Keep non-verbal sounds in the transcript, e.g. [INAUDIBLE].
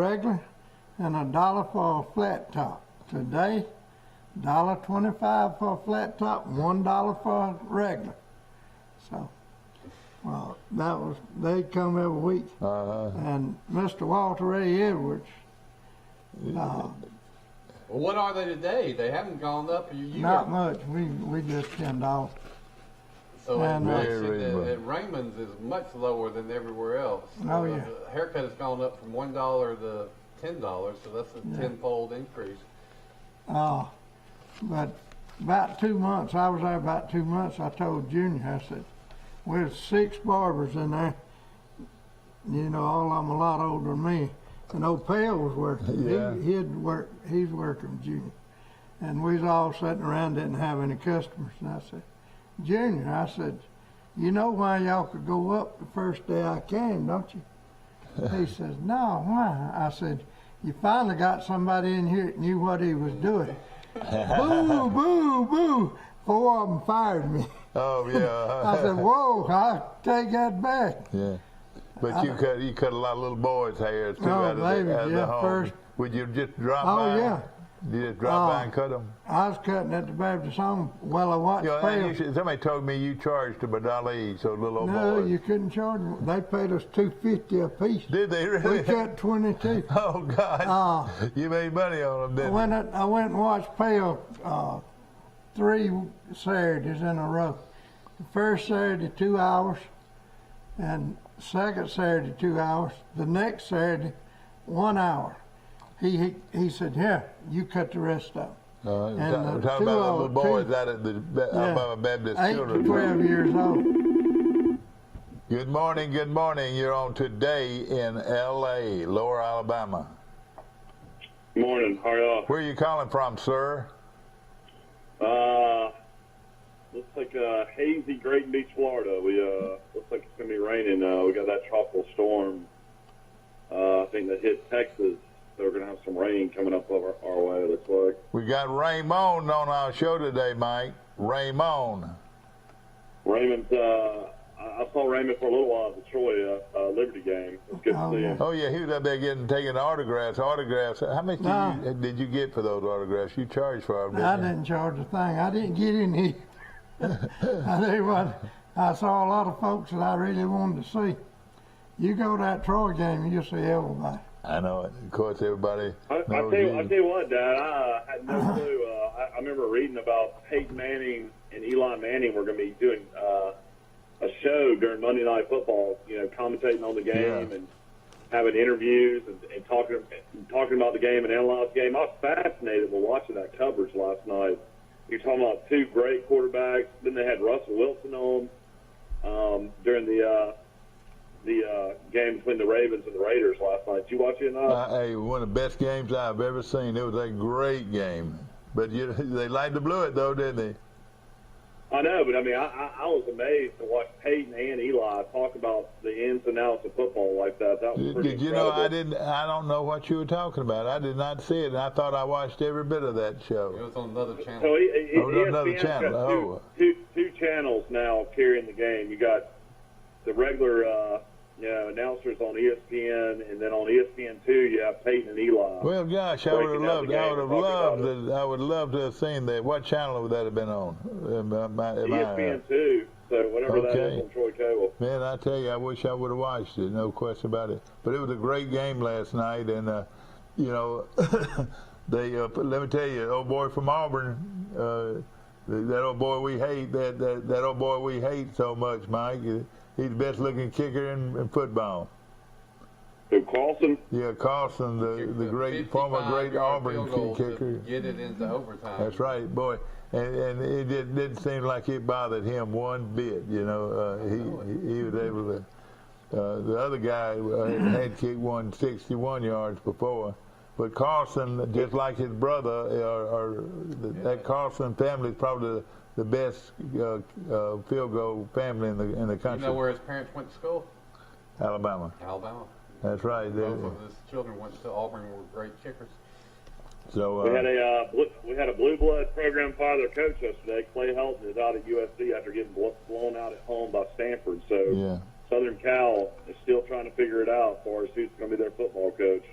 regular and a dollar for a flat top. Today, dollar twenty-five for a flat top, one dollar for a regular. So, well, that was, they come every week. Uh, And Mr. Walter Ray Edwards, uh, Well, what are they today? They haven't gone up. You, you not were- much, we, we just ten dollars. so at, and- Very Macy's, at, much. at Raymond's is much lower than everywhere else. Oh, Uh, yeah. the haircut has gone up from one dollar to ten dollars, so that's a tenfold increase. Uh, but about two months, I was there about two months, I told Junior, I said, there's six barbers in there. You know, all of them a lot older than me. And old Pell was working. Yeah. He, he'd work, he's working with Junior. And we was all sitting around, didn't have any customers. And I said, Junior, I said, you know why y'all could go up the first day I came, don't you? He says, no, why? I said, you finally got somebody in here that knew what he was doing. [LAUGHS] boo, boo, boo. Four of them fired me. oh I yeah. [LAUGHS] said, whoa, I take that back. yeah. But you cut you cut a lot of little boys' hairs too Oh, out of, baby, the, out of yeah, the home. first- Would you just drop Oh, by? yeah. You just drop Oh. by and cut them. I was cutting at the Baptist home while I watched You know, and you Pale. should, Oh, somebody told me you charged them a dollar each, so little old No, boys. you couldn't charge them. They paid us two fifty a [LAUGHS] piece. Did they We really? cut twenty-two. oh God! Oh. you made money on them, I didn't went, up- I went and watched Pale uh, three Saturdays in a row. The first Saturday, two hours, and second Saturday, two hours. The next Saturday, one hour. He he, he said, "Here, you cut the rest up." you? Uh, and ta- the talking about the little two- boys out at the Ba- Alabama Baptist Eight to Children's twelve years old. [LAUGHS] Good morning, good morning. You're on today in L.A., Lower Alabama. Morning, how are y'all? Where are you calling from, sir? Uh, looks like uh, hazy Great Beach, Florida. We uh, looks like it's gonna be raining. Uh, we got that tropical storm. Uh, I think that hit Texas. So we're gonna have some rain coming up over our way. it Looks like. We got Raymond on our show today, Mike. Raymond. Raymond. Uh, I I saw Raymond for a little while at the Troy uh, uh, Liberty game. It was good Oh, to see yeah. him. Oh yeah, he was up there getting taking autographs. Autographs. How much Nah. did, you, uh, did you get for those autographs? You charged for them. I didn't you? didn't charge a thing. I didn't get any. [LAUGHS] I tell you what, I saw a lot of folks that I really wanted to see. You go to that Troy game, and you'll see everybody. I know it. Of course, everybody. I, I, knows tell you, I you. tell you what, Dad, I uh, had no clue. Uh, I, I remember reading about Peyton Manning and Eli Manning were going to be doing uh, a show during Monday Night Football. You know, commentating on the game Yeah. and having interviews and, and talking and talking about the game and analyzing the game. I was fascinated when watching that coverage last night. You're talking about two great quarterbacks. Then they had Russell Wilson on um, during the uh, the uh, game between the Ravens and the Raiders last night. Did you watch it? Or not? Uh, hey, one of the best games I've ever seen. It was a great game. But you, [LAUGHS] they lied to blew it though, didn't they? I know, but I mean, I, I, I was amazed to watch Peyton and Eli talk about the ins and outs of football like that. That was Did pretty you know? I incredible. didn't. I don't know what you were talking about. I did not see it, and I thought I watched every bit of that It show. was on another channel. So it, it, Oh, no, another ESPN's got channel. two- Oh. two- two channels now carrying the game. You got the regular, uh, you know, announcers on E ESPN, and then on E ESPN two, you have Peyton and Eli. Well, gosh, I Breaking would have down loved. I would have the game and talking loved. about To, I would love to have seen that. What channel would that have been on? Am I- am I- E am I- ESPN two, so whatever that Okay. is on Troy Cable. Man, I tell you, I wish I would have watched it. No question about it. But it was a great game last night, and uh, you know, [LAUGHS] they. Uh, but let me tell you, old boy from Auburn, uh, th- that old boy we hate, that, that that old boy we hate so much, Mike. uh, He's the best looking kicker in, in football. So Carlson, Yeah, Carlson, the the great former 55 great yard Auburn field goal kicker. to Get it into overtime. That's right, boy. And, and it did, didn't seem like it bothered him one bit. You know, uh, he he he was able to. Uh, the other guy uh, had kicked one 61 yards before, but Carlson, just like his brother, or, or the, that Carlson family is probably the, the best uh, uh, field goal family in the in the You country, know where his parents went to school? Alabama. Alabama. That's right. they- Both of his children went to Auburn. and Were great kickers. So we had uh, a uh, blue, we had a blue blood program father coach yesterday. Clay Helton is out at USC after getting blo- blown out at home by Stanford. So yeah. Southern Cal is still trying to figure it out as far as who's going to be their football coach.